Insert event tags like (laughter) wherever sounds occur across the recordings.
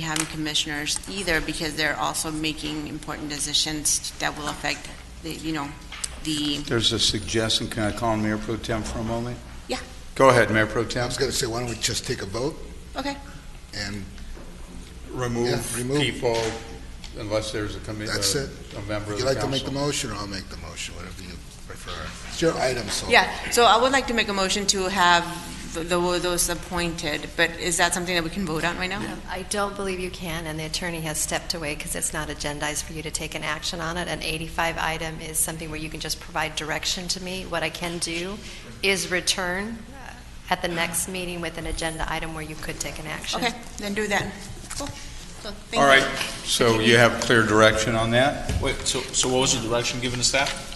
having commissioners either, because they're also making important decisions that will affect, the you know, the, There's a suggestion, can I call on Mayor Pro Tem for a moment? Yeah. Go ahead, Mayor Pro I Tem. was going to say, why don't we just take a vote okay, and Yeah, Remove remove. people unless there's a committee, That's it. a member of you the like to make the council. motion, or I'll make the motion, whatever you prefer. It's your item, so. yeah. So I would like to make a motion to have the- those appointed, but is that something that we can vote on right now? Um, I don't believe you can, and the attorney has stepped away because it's not agendized for you to take an action on it. An 85 item is something where you can just provide direction to me. What I can do is return uh, at the next meeting with an agenda item where you could take an action. Okay, then do that. Cool. So, thank All you. right, so you have clear direction on that? Wait, so, so what was the direction given to staff?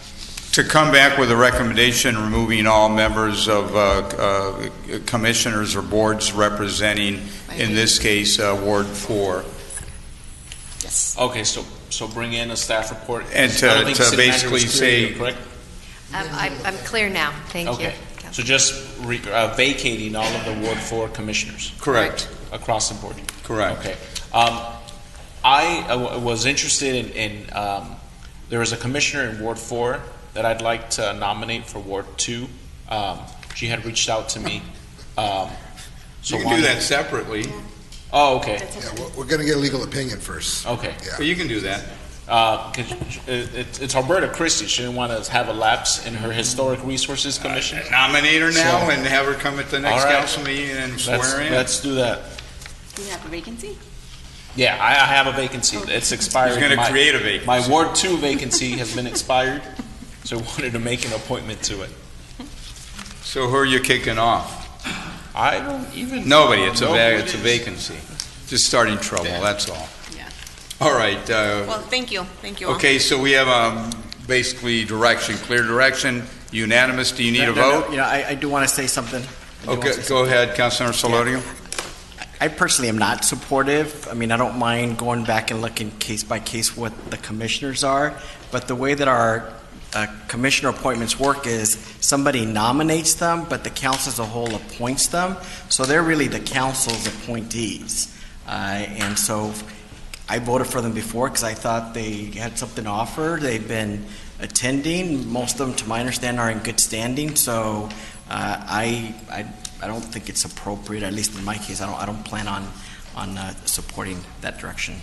To come back with a recommendation removing all members of uh, uh, commissioners or boards representing, in this case, uh, Ward 4, Yes. Okay, so, so bring in a staff report. And to- I don't think to city manager was basically say- clear, Correct? Um, I'm I'm clear now. Thank you. Okay, so just re- uh, vacating all of the Ward Four commissioners correct? across the board. Correct. Okay. Um, I uh, w- was interested in, in, um, there is a commissioner in Ward Four that I'd like to nominate for Ward Two. Um, she had reached out to me, um. so You can do wanted- that separately, Oh, okay, Yeah, we're- we're going to get a legal opinion first. okay. Yeah. but you can do that. Uh, 'cause it- it- it's Alberta Christie. She didn't want to have a lapse in her Historic Resources Commission. Nominate her now So- and have her come at the next All right. council meeting and Let's, swear in. let's do that. Do you have a vacancy? Oh. Yeah, I I have a vacancy. It's expired. He's going to My- create a vacancy. My Ward Two vacancy has been expired, so I wanted to make an appointment to it. So who are you kicking off? I don't even. Nobody, it's a, know va- who it it's a is. vacancy. Just starting trouble, that's all. Yeah. All right, uh, Well, thank you, thank you all. okay, so we have, um, basically direction, clear direction, unanimous, do you need a No, no, no, vote? You know, I, I do want to say something. I do wanna Okay, say go something. ahead, Councilor Solodium. I personally am not supportive. I mean, I don't mind going back and looking case by case what the commissioners are, but the way that our uh, commissioner appointments work is somebody nominates them, but the council as a whole appoints them. So they're really the council's appointees. Uh, And so I voted for them before because I thought they had something to offer. They've been attending. Most of them, to my understanding, are in good standing. So uh, I, I I don't think it's appropriate, at least in my case, I don't, I don't plan on, on uh, supporting that direction.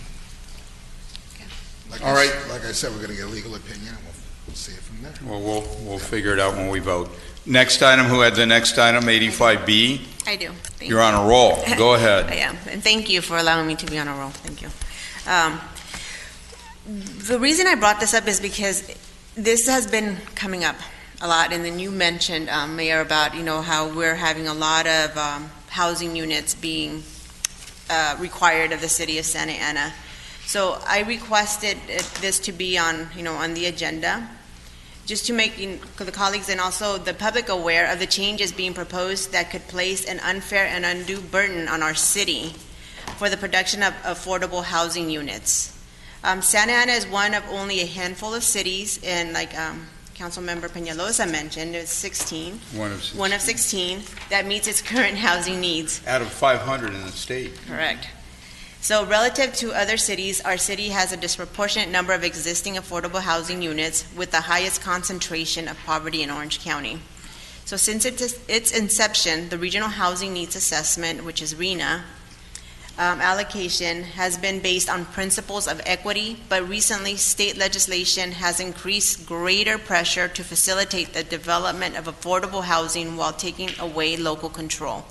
Like I All s- right. Like I said, we're going to get a legal opinion, and we'll- we'll see it from there. Well, we'll, we'll figure it out when we vote. Next item, who had the next item, eighty-five B? I do. Thank You're on a roll, (laughs) go ahead. I am, and thank you for allowing me to be on a roll. Thank you. Um, the reason I brought this up is because this has been coming up a lot, and then you mentioned, um, Mayor, about you know how we're having a lot of um, housing units being uh, required of the city of Santa Ana. So I requested uh, this to be on you know on the agenda. Just to make you know, the colleagues and also the public aware of the changes being proposed that could place an unfair and undue burden on our city for the production of affordable housing units. Um, Santa Ana is one of only a handful of cities, and like um, Councilmember Peñalosa mentioned, it's 16, One of, one of 16, that meets its (laughs) current housing needs. out of five hundred in the state. Correct. So relative to other cities, our city has a disproportionate number of existing affordable housing units with the highest concentration of poverty in Orange County. So since its its inception, the Regional Housing Needs Assessment, which is RENA, um, allocation has been based on principles of equity, but recently, state legislation has increased greater pressure to facilitate the development of affordable housing while taking away local control.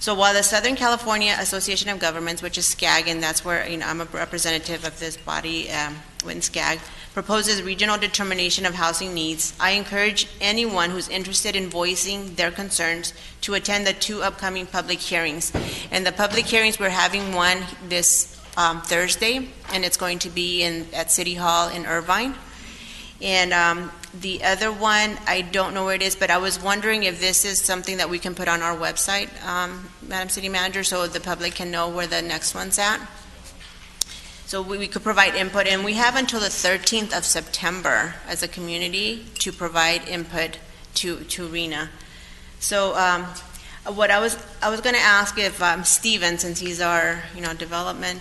So while the Southern California Association of Governments, which is SCAG, and that's where, you know, I'm a representative of this body um, in SCAG, proposes regional determination of housing needs, I encourage anyone who's interested in voicing their concerns to attend the two upcoming public hearings. And the public hearings, we're having one this um, Thursday, and it's going to be in, at City Hall in Irvine. And um, the other one, I don't know where it is, but I was wondering if this is something that we can put on our website, um, Madam City Manager, so the public can know where the next one's at. So we we could provide input, and we have until the 13th of September as a community to provide input to, to RENA. So um, what I was, I was going to ask if um, Steven, since he's our, you know, development